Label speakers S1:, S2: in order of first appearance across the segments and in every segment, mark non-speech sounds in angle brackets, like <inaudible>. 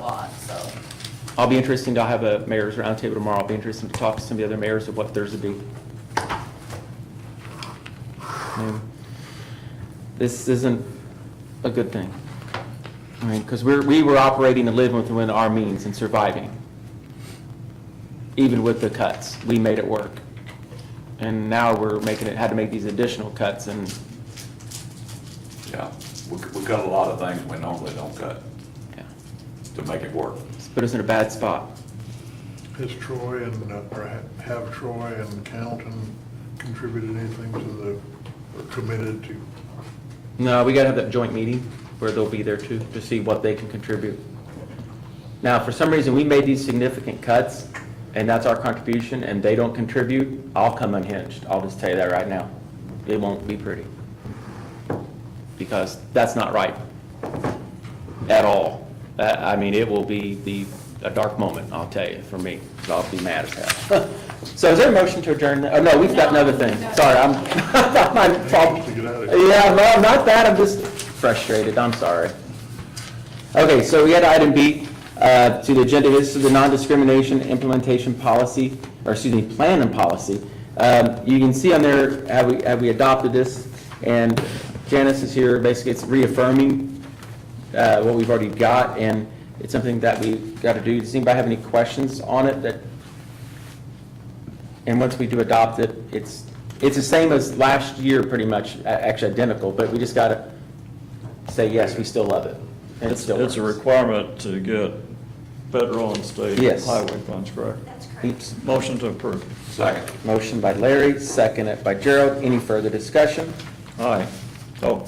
S1: lot, so.
S2: I'll be interested, I'll have a mayor's roundtable tomorrow. I'll be interested to talk to some of the other mayors of what theirs would be. Um, This isn't a good thing. I mean, because we're, we were operating and living within our means and surviving. Even with the cuts, we made it work. And now we're making it, had to make these additional cuts and
S3: Yeah, we, we cut a lot of things we normally don't cut
S2: yeah,
S3: to make it work.
S2: it's put us in a bad spot.
S4: Has Troy and, uh, or ha- have Troy and Calton contributed anything to the, or committed to?
S2: No, we gotta have that joint meeting where they'll be there too, to see what they can contribute. Now, for some reason, we made these significant cuts, and that's our contribution, and they don't contribute, I'll come unhinged. I'll just tell you that right now. It won't be pretty. Because that's not right. At all. That- I mean, it will be the, a dark moment, I'll tell you, for me, 'cause I'll be mad as hell. <laughs> So is there a motion to adjourn? Oh, no, we've got another thing. Sorry, I'm, <laughs> I'm
S4: To get out of here.
S2: yeah, no, not that, I'm just frustrated, I'm sorry. Okay, so we had item B uh, to the agenda, this is the non-discrimination implementation policy, or excuse me, plan and policy. Um, You can see on there, have we, have we adopted this? And Janice is here, basically it's reaffirming uh, what we've already got, and it's something that we've got to do. Does anybody have any questions on it that and once we do adopt it, it's, it's the same as last year, pretty much, a- actually identical, but we just gotta say, yes, we still love it. and it
S5: It's,
S2: still
S5: it's a
S2: works.
S5: requirement to get federal and state
S2: Yes.
S5: highway funds, correct?
S1: That's
S2: Oops.
S5: Motion to approve.
S2: <laughs>
S3: Second,
S2: Motion by Larry, seconded by Gerald. Any further discussion?
S5: Aye. Oh,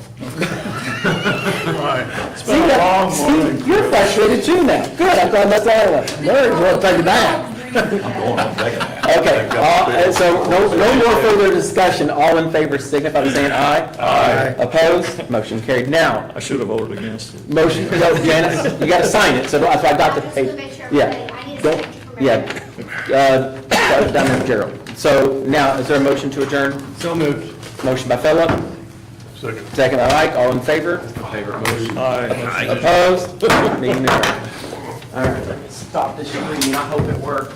S2: It's been a long morning. You're frustrated too now. Good, I'm glad that's out of it. Larry, you wanna take it down?
S3: going on second half.
S2: Okay, all- and so no, no more further discussion. All in favor signify by saying aye. Aye. Opposed? Motion carried. Now,
S5: I should have voted against it.
S2: Motion, no, Janice, you gotta sign it, so that's why I got the
S6: Just to
S2: paper.
S6: make sure
S2: Yeah.
S6: everybody- I need a
S2: Don't-
S6: signature from
S2: Yeah,
S6: everybody.
S2: uh, that was down there, Gerald. So now, is there a motion to adjourn? So moved. Motion by Philip,
S4: Second.
S2: second by Mike, all in favor?
S5: Aye.
S2: Opposed? Meeting adjourned. All right, stop this meeting, I hope it works.